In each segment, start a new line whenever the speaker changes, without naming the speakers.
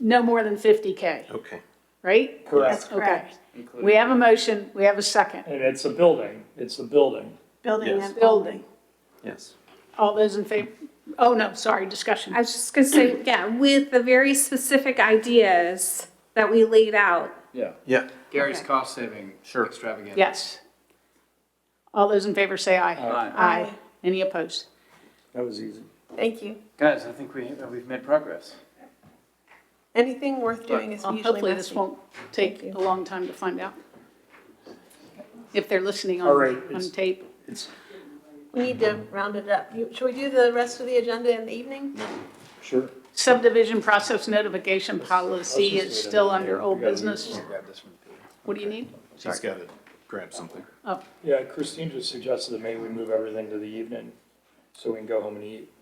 no more than 50K,
Okay.
right?
Correct.
Okay.
Including-
We have a motion, we have a second.
And it's a building, it's a building.
Building
Yes.
and
Building.
Yes.
All those in favor, oh no, sorry, discussion.
I was just gonna say, yeah, with the very specific ideas that we laid out.
Yeah.
Yeah.
Gary's
Okay.
cost saving
Sure.
extravaganza.
Yes. All those in favor say aye.
Aye.
Aye. Any opposed?
That was easy.
Thank you.
Guys, I think we, uh, we've made progress.
Anything worth doing is
Well,
usually
Um, Hopefully this
messy.
won't take a long time to find out. If they're listening
All right,
on, on
it's-
tape.
It's,
We need to round it up. You- Should we do the rest of the agenda in the evening?
sure.
Subdivision process notification policy is still under old business.
Grab this from Peter.
What do you need?
She's got to grab something.
Oh,
Yeah, Christine just suggested that maybe we move everything to the evening, so we can go home and eat.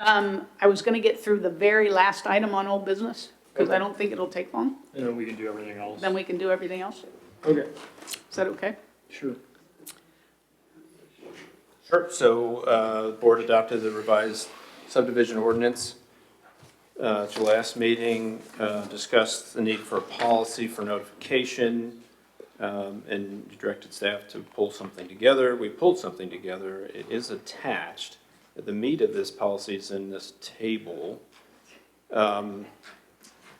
um, I was gonna get through the very last item on old business, because I don't think it'll take long.
And then we can do everything else.
Then we can do everything else.
Okay,
Is that okay?
sure.
Sure. So, uh, the board adopted the revised subdivision ordinance. Uh, at your last meeting, uh, discussed the need for a policy for notification. Um, and you directed staff to pull something together. We pulled something together. It is attached. The meat of this policy is in this table. Um,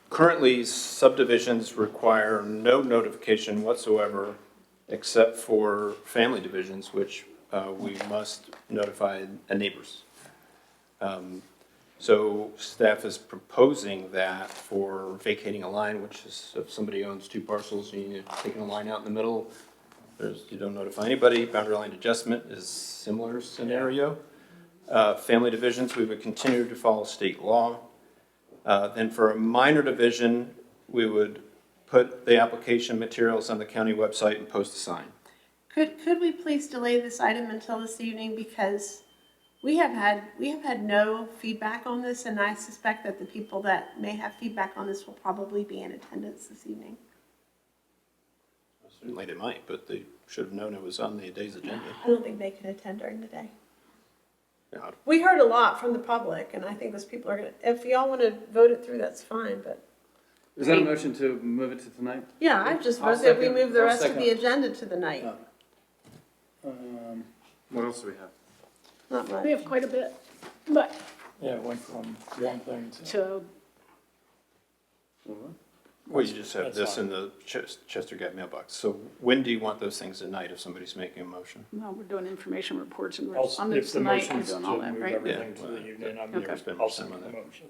currently subdivisions require no notification whatsoever except for family divisions, which uh, we must notify the neighbors. Um, So staff is proposing that for vacating a line, which is if somebody owns two parcels, you need to take a line out in the middle. There's, you don't notify anybody. Boundary line adjustment is similar scenario. Uh, Family divisions, we would continue to follow state law. Uh, Then for a minor division, we would put the application materials on the county website and post a sign.
Could, could we please delay this item until this evening because we have had, we have had no feedback on this and I suspect that the people that may have feedback on this will probably be in attendance this evening.
Certainly they might, but they should have known it was on the day's agenda.
I don't think they can attend during the day.
Yeah,
We heard a lot from the public and I think those people are gonna, if y'all wanna vote it through, that's fine, but
Is that a motion to move it to tonight?
yeah, I just
I'll
vote that we
second-
move the
I'll
rest of
second.
the agenda to the night.
Um,
What else do we have?
Not much.
We have quite a bit, but,
yeah, it went from one thing to,
so,
Well, you just have
That's
this
fine.
in the Ches- Chester Gap mailbox. So when do you want those things at night if somebody's making a motion?
no, we're doing information reports and
I'll- if
correspondence
the
tonight.
motion is to
and all that,
move
right?
everything
Yeah.
to the evening, I'm
Okay.
here.
Spend
I'll
some
second
on
the
that.
motion.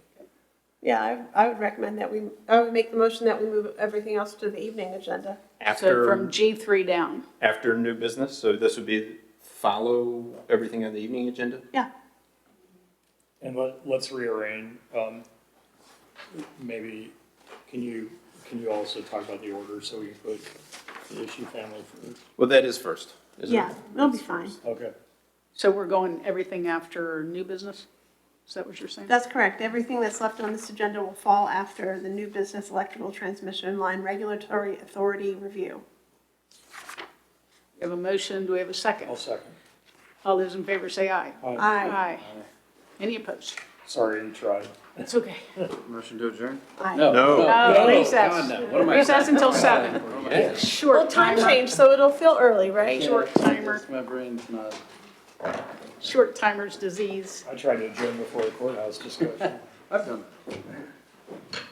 Yeah, I, I would recommend that we, I would make the motion that we move everything else to the evening agenda.
So from
After,
G3 down.
after new business, so this would be follow everything on the evening agenda?
Yeah.
And let, let's rearrange, um, maybe, can you, can you also talk about the order, so we can put the issue family first?
Well, that is first, isn't it?
Yeah, that'll be fine.
Okay.
So we're going everything after new business? Is that what you're saying?
That's correct. Everything that's left on this agenda will fall after the new business electrical transmission line regulatory authority review.
We have a motion, do we have a
I'll
second?
second.
All those in favor say aye.
Aye.
Aye.
Any opposed?
Sorry, you tried.
It's okay.
Motion to adjourn?
Aye.
No.
No,
God,
recess.
no. What am I?
Recess until seven.
Well,
Short
time
timer,
change, so it'll feel early, right?
short timer,
My brain's not.
short timer's disease.
I tried to adjourn before the courthouse discussion.
I've done.